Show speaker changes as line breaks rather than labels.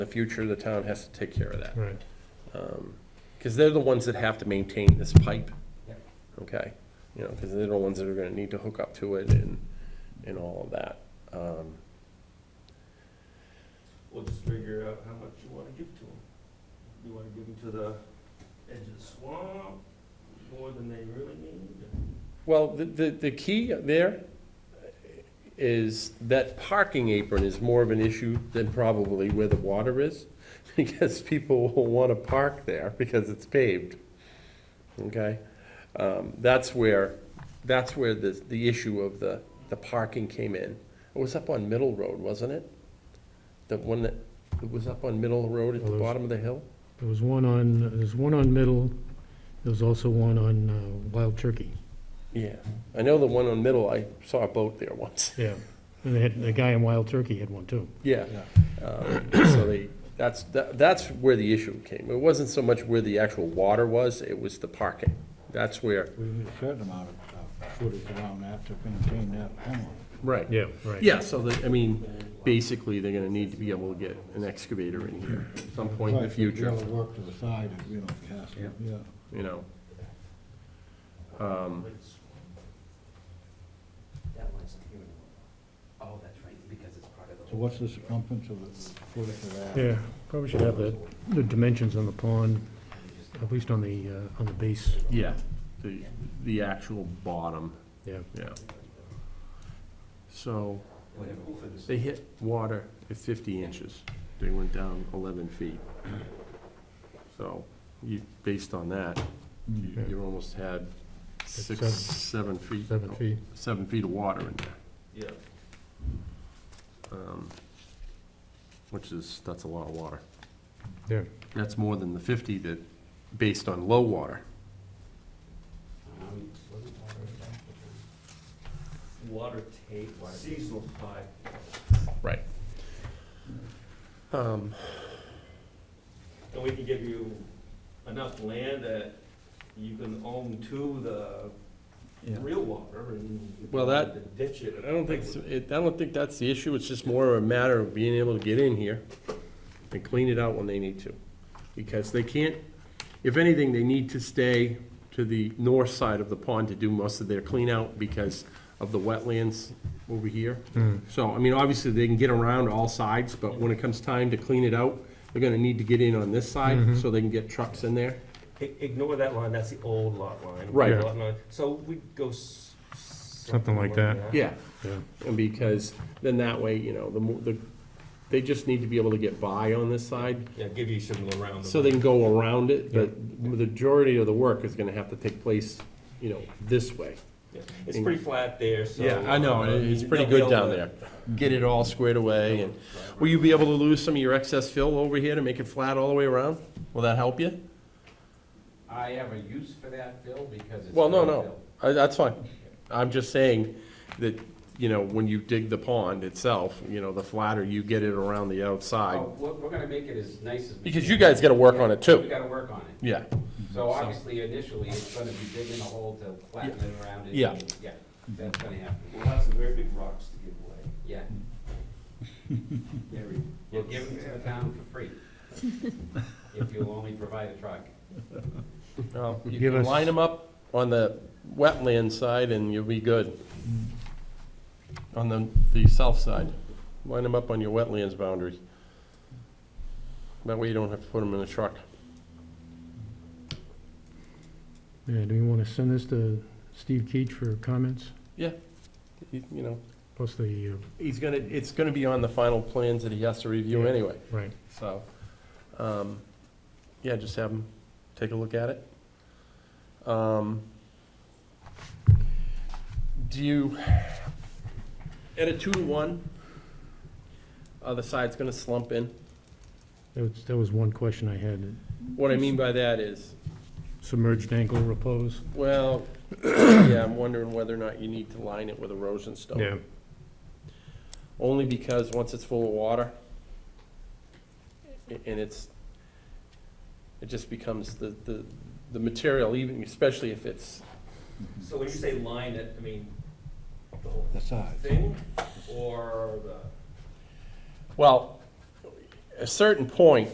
the future, the town has to take care of that.
Right.
Because they're the ones that have to maintain this pipe.
Yep.
Okay, you know, because they're the ones that are gonna need to hook up to it and, and all of that. Um,
We'll just figure out how much you wanna give to them. You wanna give them to the edge of the swamp, more than they really need?
Well, the, the, the key there is that parking apron is more of an issue than probably where the water is, because people will wanna park there because it's paved, okay? Um, that's where, that's where the, the issue of the, the parking came in. It was up on Middle Road, wasn't it? The one that, it was up on Middle Road at the
Well, there's-
bottom of the hill?
There was one on, there's one on Middle, there was also one on uh, Wild Turkey.
Yeah, I know the one on Middle, I saw a boat there once.
Yeah. And they had, the guy in Wild Turkey had one too.
Yeah. Um, So they, that's, that- that's where the issue came. It wasn't so much where the actual water was, it was the parking. That's where.
We need a certain amount of uh, footage around that to maintain that home.
Right.
Yeah, right.
Yeah, so that, I mean, basically, they're gonna need to be able to get an excavator in here at some point in the
Right, we'll be
future,
able to work to the side, if, you know, if it has to, yeah.
you know. Hmm.
That one's here anymore. Oh, that's right, because it's part of the.
So what's the circumference of the footage of that?
Yeah, probably should have the, the dimensions on the pond, at least on the, uh, on the base,
Yeah, the, the actual bottom,
yeah.
yeah. So,
Whatever.
they hit water at fifty inches. They went down eleven feet. So, you, based on that, you, you almost had six, seven
Seven.
feet.
Seven feet.
Seven feet of water in there,
Yeah.
um, which is, that's a lot of water.
Yeah.
That's more than the fifty that, based on low water.
Um,
Water tape, seasonal pipe.
Right. Um,
And we can give you enough land that you can own to the real water and.
Well, that-
Ditch it.
I don't think, it's- it, I don't think that's the issue, it's just more of a matter of being able to get in here and clean it out when they need to. Because they can't, if anything, they need to stay to the north side of the pond to do most of their clean out because of the wetlands over here. So, I mean, obviously, they can get around all sides, but when it comes time to clean it out, they're gonna need to get in on this side so they can get trucks in there.
I- Ignore that line, that's the old lot line.
Right.
Lot line. So we go. s-
Something like that.
Yeah.
Yeah.
And because, then that way, you know, the, mo- the, they just need to be able to get by on this side,
Yeah, give you some little round.
so they can go around it, but the majority of the work is gonna have to take place, you know, this way.
Yeah. It's pretty flat there, so. uh,
It's
you-
pretty
they'll
good
be
down
able to-
there. Get it all squared away, and will you be able to lose some of your excess fill over here to make it flat all the way around? Will that help you?
I have a use for that, Phil, because it's.
Well, no,
gravel.
no, I- that's fine. I'm just saying that, you know, when you dig the pond itself, you know, the flatter you get it around the outside,
Oh, we're, we're gonna make it as nice as. we
Because
can.
you guys gotta work on it
We
too.
gotta work on it.
Yeah,
So obviously initially, it's gonna be digging a hole to flatten it around it.
Yeah.
and- Yeah, that's gonna happen,
We'll have some very big rocks to give away.
yeah.
Yeah, we-
You'll give them to the town for free. If you'll only provide a truck.
Well, you
Give
can
us-
line them up on the wetland side and you'll be good. On the, the south side, line them up on your wetlands boundary. That way you don't have to put them in a truck.
Yeah, do we want to send this to Steve Keach for comments,
You you know,
plus the, uh,
he's gonna, it's gonna be on the final plans that he has to review
Yeah.
anyway,
right,
so, um, yeah, just have him take a look at it. Um, Do you, at a two to one, other side's gonna slump in?
that was, that was one question I had,
What I mean by that is,
submerged ankle repose.
well, yeah, I'm wondering whether or not you need to line it with erosion stone. Only because once it's full of water, a- and it's, it just becomes the, the, the material, even, especially if it's,
So when you say line it, I mean, the whole
The size.
thing, or the,
well, a certain point,